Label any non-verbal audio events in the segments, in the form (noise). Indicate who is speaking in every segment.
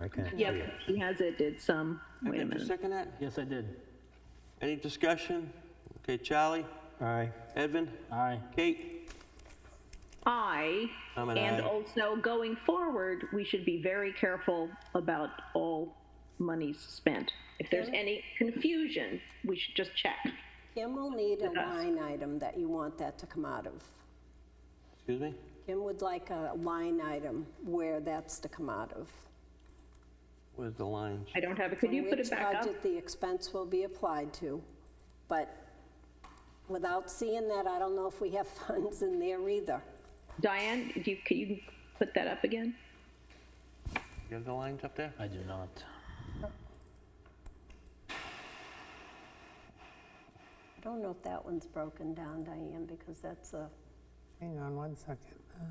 Speaker 1: I can't see
Speaker 2: Yep,
Speaker 1: it.
Speaker 2: he has it, did some, wait a
Speaker 3: Did you
Speaker 2: minute.
Speaker 3: second that?
Speaker 4: Yes, I did.
Speaker 3: Any discussion? Okay, Charlie,
Speaker 1: Aye,
Speaker 3: Edvin,
Speaker 4: Aye.
Speaker 3: Kate?
Speaker 2: I,
Speaker 3: I'm an
Speaker 2: and
Speaker 3: aye.
Speaker 2: also going forward, we should be very careful about all monies spent. If there's any confusion, we should just check.
Speaker 5: Kim will need a line item that you want that to come out of.
Speaker 3: Excuse me?
Speaker 5: Kim would like a line item where that's to come out of.
Speaker 3: Where's the lines?
Speaker 2: I don't have it, could you put it back
Speaker 5: Which
Speaker 2: up?
Speaker 5: budget the expense will be applied to, but without seeing that, I don't know if we have (laughs) funds in there either.
Speaker 2: Diane, do you, can you put that up again?
Speaker 3: You have the lines up there?
Speaker 4: I do not.
Speaker 5: I don't know if that one's broken down, Diane, because that's a,
Speaker 6: Hang on one second. Uh,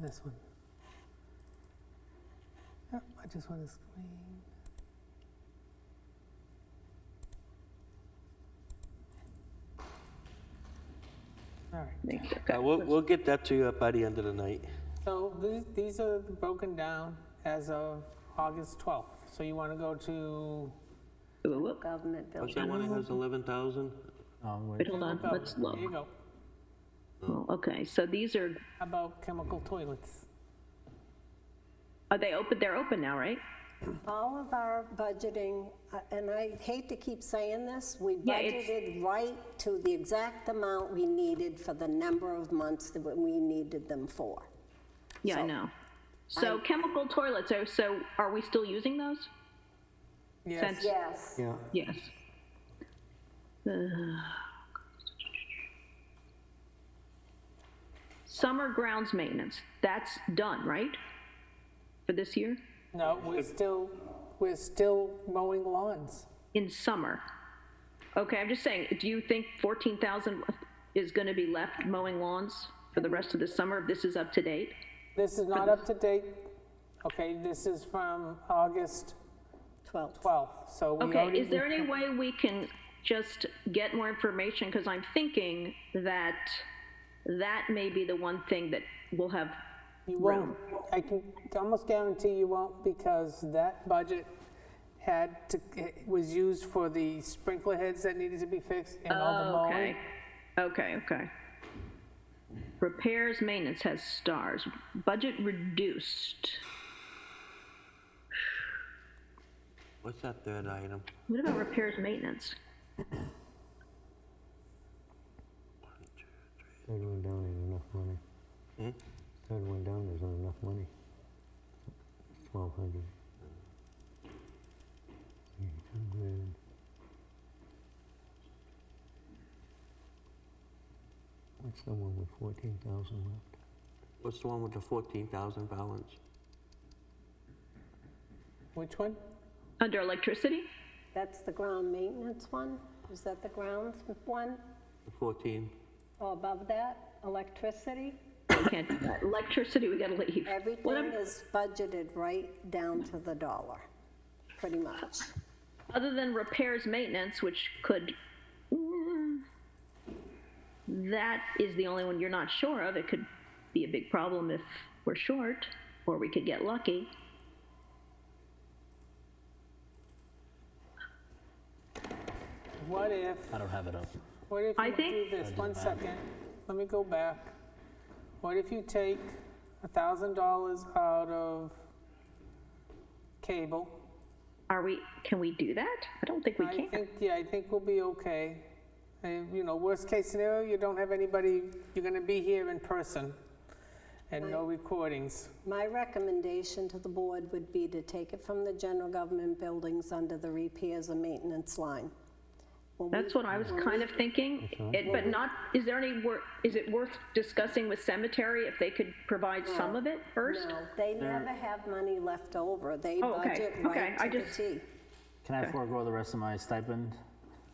Speaker 6: this one. Yep, I just want to screen. All right.
Speaker 2: Thank you.
Speaker 3: Uh, We'll, we'll get that to you up by the end of the night.
Speaker 6: So these, these are broken down as of August 12th. So you want to oh, go to,
Speaker 2: Whoa, whoa, whoa.
Speaker 5: government
Speaker 3: What's
Speaker 5: building.
Speaker 3: that one that has 11,000?
Speaker 4: Um, wait.
Speaker 2: Wait, hold on, let's
Speaker 6: there you
Speaker 2: look.
Speaker 6: go.
Speaker 2: Well, Okay, so these are,
Speaker 6: How about chemical toilets?
Speaker 2: are they open, they're open now, right?
Speaker 5: All of our budgeting, uh, and I hate to keep saying this, we
Speaker 2: Yeah, it's-
Speaker 5: budgeted right to the exact amount we needed for the number of months that we needed them for.
Speaker 2: Yeah, I
Speaker 5: So,
Speaker 2: know. So chemical toilets, are, so are we still using those? Since-
Speaker 5: Yes.
Speaker 1: yeah.
Speaker 2: Yes. (sighs) Uh, Summer grounds maintenance, that's done, right? For this year?
Speaker 6: No, we're still, we're still mowing lawns.
Speaker 2: In summer? Okay, I'm just saying, do you think 14,000 is going to be left mowing lawns for the rest of the summer if this is up to date?
Speaker 6: This is not up to date. Okay, this is from August
Speaker 5: 12.
Speaker 6: 12th, so we
Speaker 2: Okay,
Speaker 6: already.
Speaker 2: is there any way we can just get more information? Because I'm thinking that that may be the one thing that will have,
Speaker 6: You won't, I can almost guarantee you won't because that budget had to, it was used for the sprinkler heads that needed to be fixed and all the
Speaker 2: Oh, okay,
Speaker 6: mowing.
Speaker 2: okay, okay. Repairs, maintenance has stars, budget reduced.
Speaker 3: What's that third item?
Speaker 2: What about repairs, maintenance?
Speaker 1: Third one down ain't enough money. Third one down isn't enough money. Twelve hundred. Eight hundred. What's the one with fourteen thousand left?
Speaker 3: What's the one with the 14,000 balance?
Speaker 6: Which one?
Speaker 2: Under electricity?
Speaker 5: That's the ground maintenance one? Is that the grounds one?
Speaker 3: The 14?
Speaker 5: Or above that, electricity?
Speaker 2: We can't do that. Electricity, we gotta leave. What
Speaker 5: Everything
Speaker 2: ab-
Speaker 5: is budgeted right down to the dollar, pretty much.
Speaker 2: other than repairs maintenance which could Mm, that is the only one you're not sure of it could be a big problem if we're short or we could get lucky
Speaker 6: What if,
Speaker 4: I don't have it up.
Speaker 6: what if
Speaker 2: I
Speaker 6: you
Speaker 2: think-
Speaker 6: do this, one second, let me go back. What if you take a thousand dollars out of cable?
Speaker 2: are we can we do that i don't think we
Speaker 6: I
Speaker 2: can
Speaker 6: think, yeah, I think we'll be okay. And, you know, worst case scenario, you don't have anybody, you're gonna be here in person and no recordings.
Speaker 5: My recommendation to the board would be to take it from the general government buildings under the repairs and maintenance line. When we-
Speaker 2: that's what i was kind of thinking it, but not is there any work is it worth discussing with cemetery if they could provide some of it first
Speaker 5: No, They never have money left over. They
Speaker 2: Oh, okay,
Speaker 5: budget
Speaker 2: okay,
Speaker 5: right
Speaker 2: I
Speaker 5: to the
Speaker 2: just-
Speaker 5: T.
Speaker 4: Can I forego the rest of my stipend?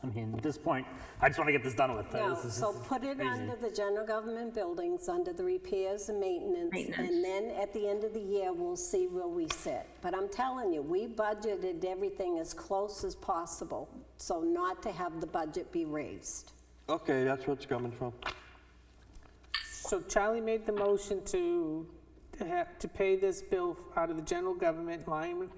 Speaker 4: I mean, at this point, I just want to get this done with.
Speaker 5: No,
Speaker 4: Oh, This is-
Speaker 5: so put it under the general government buildings, under the repairs and maintenance.
Speaker 2: Maintenance.
Speaker 5: And then at the end of the year, we'll see where we sit. But I'm telling you, we budgeted everything as close as possible, so not to have the budget be raised.
Speaker 3: Okay, that's what's coming from.
Speaker 6: So Charlie made the motion to, to ha- to pay this bill out of the general government line